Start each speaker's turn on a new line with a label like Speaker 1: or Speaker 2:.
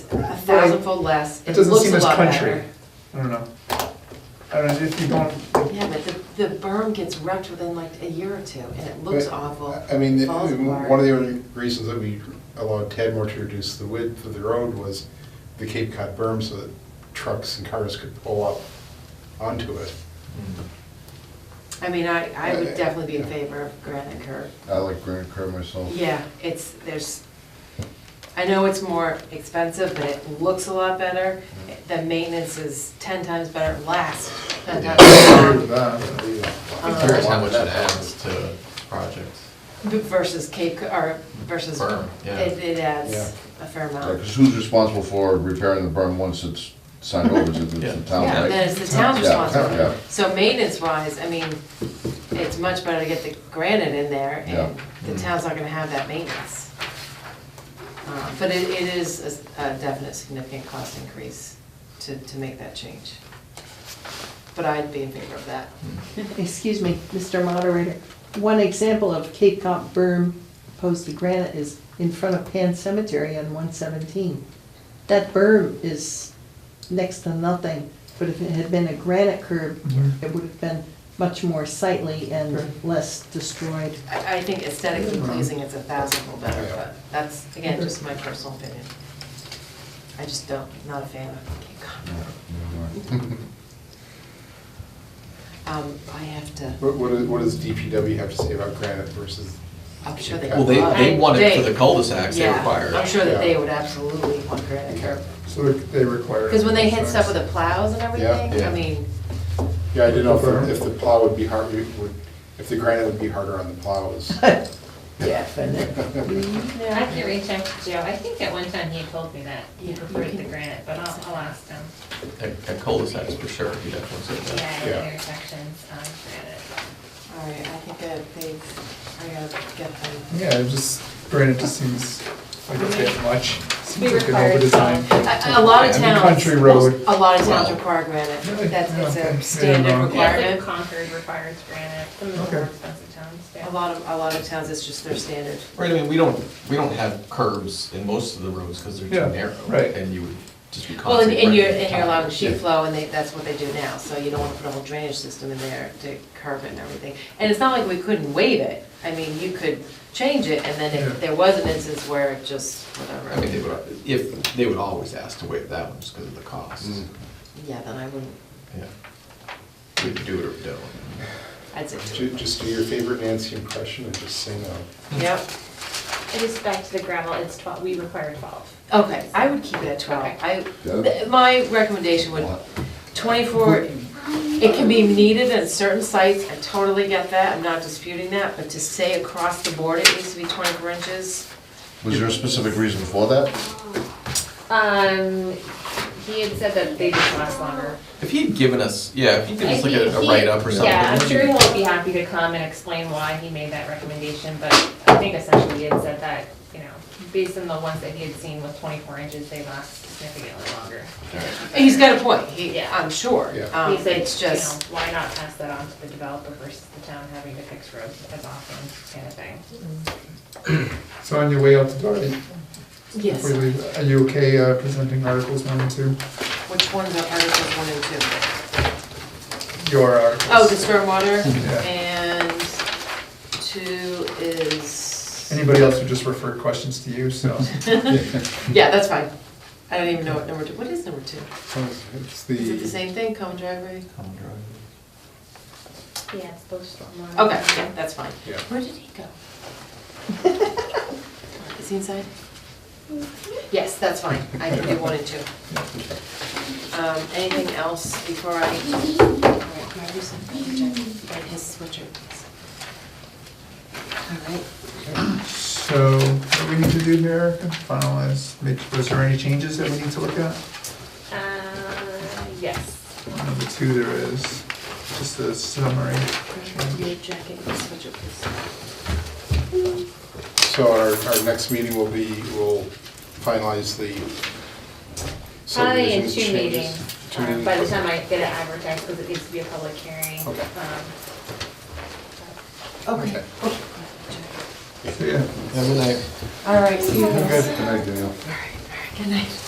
Speaker 1: very-
Speaker 2: thousandfold less,
Speaker 1: It
Speaker 2: it
Speaker 1: doesn't
Speaker 2: looks
Speaker 1: seem
Speaker 2: a
Speaker 1: as
Speaker 2: lot
Speaker 1: country.
Speaker 2: better.
Speaker 1: I don't know. I don't know, if you don't,
Speaker 2: Yeah, but the, the berm gets wrecked within like a year or two, and it looks
Speaker 3: But,
Speaker 2: awful.
Speaker 3: I mean, the-
Speaker 2: Falls apart.
Speaker 3: one of the only reasons that we allowed Tadmore to reduce the width of the road was the Cape Cod berm so that trucks and cars could pull up onto it.
Speaker 2: I mean, I, I would
Speaker 3: Uh,
Speaker 2: definitely be in
Speaker 3: yeah.
Speaker 2: favor of granite curb.
Speaker 4: I like granite curb myself.
Speaker 2: Yeah, it's, there's, I know it's more expensive, but it looks a lot better. The maintenance is ten times better, lasts ten times
Speaker 1: agree
Speaker 2: better
Speaker 1: with that.
Speaker 2: Uh,
Speaker 4: I'm curious
Speaker 2: Um,
Speaker 4: how much it
Speaker 5: That
Speaker 4: adds.
Speaker 5: adds to projects.
Speaker 2: versus Cape, Co- or versus,
Speaker 5: Berm, yeah.
Speaker 2: it, it
Speaker 3: Yeah.
Speaker 2: adds a fair amount.
Speaker 4: Because who's responsible for repairing the berm once it's signed over, is it the- the
Speaker 5: Yeah.
Speaker 4: town,
Speaker 2: Yeah,
Speaker 4: right?
Speaker 2: then it's the town's
Speaker 4: Yeah, yeah.
Speaker 2: responsibility. So maintenance wise, I mean, it's much better to get the granite in there and
Speaker 5: Yeah.
Speaker 2: the town's not gonna have that maintenance. Uh, But it, it is a s- a definite significant cost increase to, to make that change. But I'd be in favor of that.
Speaker 6: Excuse me, Mr. Moderator. One example of Cape Cod berm opposed to granite is in front of Pan Cemetery on one seventeen. That berm is next to nothing, but if it had been a granite curb,
Speaker 1: Mhm.
Speaker 6: it would have been much more sightly
Speaker 1: Sure.
Speaker 6: and less destroyed.
Speaker 2: I, I think aesthetically pleasing, it's a thousandfold better,
Speaker 3: Yeah.
Speaker 2: but that's, again, just my personal opinion. I just don't, not a fan of Cape Cod. Um, I have to.
Speaker 3: What, what is- what does DPW have to say about granite versus?
Speaker 2: I'm sure they.
Speaker 3: Well,
Speaker 5: they- they
Speaker 2: I-
Speaker 5: want it for
Speaker 2: they-
Speaker 5: the cul-de-sacs, they
Speaker 2: yeah,
Speaker 5: require it.
Speaker 2: I'm sure that they
Speaker 3: Yeah.
Speaker 2: would absolutely want granite curb.
Speaker 1: so they require.
Speaker 2: Because when they hit stuff with
Speaker 1: it.
Speaker 2: the plows and everything,
Speaker 5: Yeah.
Speaker 2: I mean,
Speaker 3: Yeah, I didn't know if- if the plow would be hard, would, if the granite would be harder on the plows.
Speaker 2: yeah.
Speaker 7: I can reach out to Joe, I think at one time he told me that, he preferred the granite, but I'll, I'll ask him.
Speaker 5: At at cul-de-sacs, for sure, you definitely said
Speaker 7: Yeah,
Speaker 5: that.
Speaker 7: the
Speaker 3: Yeah.
Speaker 7: intersections on granite.
Speaker 2: All right, I think I, they, I gotta get them.
Speaker 1: Yeah, it just, granite just seems like a bit much. Seems like an
Speaker 7: required
Speaker 1: overdesign.
Speaker 2: A, a lot of
Speaker 1: Yeah, I mean,
Speaker 2: towns.
Speaker 1: Country road.
Speaker 2: A lot of towns
Speaker 5: Wow.
Speaker 2: require granite,
Speaker 1: Really?
Speaker 2: that's, it's
Speaker 1: Yeah, okay.
Speaker 2: a
Speaker 1: Yeah,
Speaker 2: standard
Speaker 1: no.
Speaker 7: Yeah,
Speaker 2: requirement.
Speaker 7: like Concord requires granite, some of the more
Speaker 1: Okay.
Speaker 7: expensive towns do.
Speaker 2: A lot of, a lot of towns, it's just their standard.
Speaker 5: Right, I mean, we don't, we don't have curbs in most of the roads because they're
Speaker 1: Yeah,
Speaker 5: too narrow.
Speaker 1: right.
Speaker 5: And you would just be
Speaker 2: Well, and-
Speaker 5: constantly.
Speaker 2: and you're,
Speaker 5: breaking
Speaker 2: and you're
Speaker 5: time.
Speaker 2: allowing sheet
Speaker 5: Yeah.
Speaker 2: flow, and they, that's what they do now, so you don't wanna put a whole drainage system in there to curb it and everything. And it's not like we couldn't waive it, I mean, you could change it, and then
Speaker 1: Yeah.
Speaker 2: if there was an instance where it just,
Speaker 5: I mean, they
Speaker 2: whatever,
Speaker 5: would, if, they would always ask to waive that one just because of the cost.
Speaker 3: Mm.
Speaker 2: yeah, then I wouldn't,
Speaker 5: Yeah. We could do it or we don't.
Speaker 2: I'd say.
Speaker 3: Ju- Just do your favorite Nancy impression and just say no.
Speaker 2: Yep,
Speaker 7: It is back to the gravel, it's twelve, we require twelve.
Speaker 2: okay, I would keep it at twelve,
Speaker 7: Okay.
Speaker 2: I,
Speaker 4: Yeah.
Speaker 2: th- my recommendation would, twenty-four, it can be needed at certain sites, I totally get that, I'm not disputing that, but to say across the board it needs to be twenty-four inches,
Speaker 4: Was there a specific reason for that?
Speaker 7: Um, he had said that they just last longer.
Speaker 5: If he had given us, yeah, if he could just look at
Speaker 7: He-
Speaker 5: a
Speaker 7: he-
Speaker 5: write-up or something.
Speaker 7: Yeah, I'm sure he'll be happy to come and explain why he made that recommendation, but I think essentially he had said that, you know, based on the ones that he had seen with twenty-four inches, they last significantly longer.
Speaker 5: All right.
Speaker 2: He's got a point, he,
Speaker 7: Yeah.
Speaker 2: I'm sure.
Speaker 3: Yeah.
Speaker 2: Um,
Speaker 7: He said,
Speaker 2: It's
Speaker 7: you know,
Speaker 2: just,
Speaker 7: why not pass that on to the developer versus the town having to fix roads as often, kind of thing.
Speaker 1: So on your way out the door, before
Speaker 2: yes,
Speaker 1: you leave, are you okay uh, presenting articles one and two?
Speaker 2: which ones are Articles 1 and 2?
Speaker 1: Your articles?
Speaker 2: Oh, the stormwater,
Speaker 1: Yeah.
Speaker 2: and 2 is,
Speaker 1: Anybody else who just referred questions to you, so.
Speaker 2: yeah, that's fine. I don't even know what number 2, what is number 2?
Speaker 3: It's
Speaker 2: Is it the
Speaker 3: the,
Speaker 2: same thing, common driveway?
Speaker 5: Common driveway.
Speaker 7: Yeah, it's both stormwater.
Speaker 2: Okay, yeah, that's fine.
Speaker 3: Yeah.
Speaker 2: Where did he go? Is he inside? Yes, that's fine, I can do 1 and 2. Um, Anything else before I? All right, can I do something? Right, his sweatshirt. All right.
Speaker 1: So what do we need to do here, Erica? finalize, make, was there any changes that we need to look at?
Speaker 7: Uh, yes.
Speaker 1: Number two, there is just a summary.
Speaker 2: Your jacket, your sweatshirt, please.
Speaker 3: so our, our next meeting will be, we'll finalize the
Speaker 7: Probably
Speaker 3: subdivision
Speaker 7: in two
Speaker 3: changes.
Speaker 7: meetings,
Speaker 3: Two
Speaker 7: um,
Speaker 3: meetings,
Speaker 7: by the
Speaker 3: okay.
Speaker 7: time I get it advertised, because it needs to be a public hearing.
Speaker 3: Okay.
Speaker 7: Um,
Speaker 2: Okay.
Speaker 1: So, yeah.
Speaker 5: Have a good night.
Speaker 2: All right, see you
Speaker 4: Good
Speaker 2: guys.
Speaker 4: night, Danielle.
Speaker 2: Good night.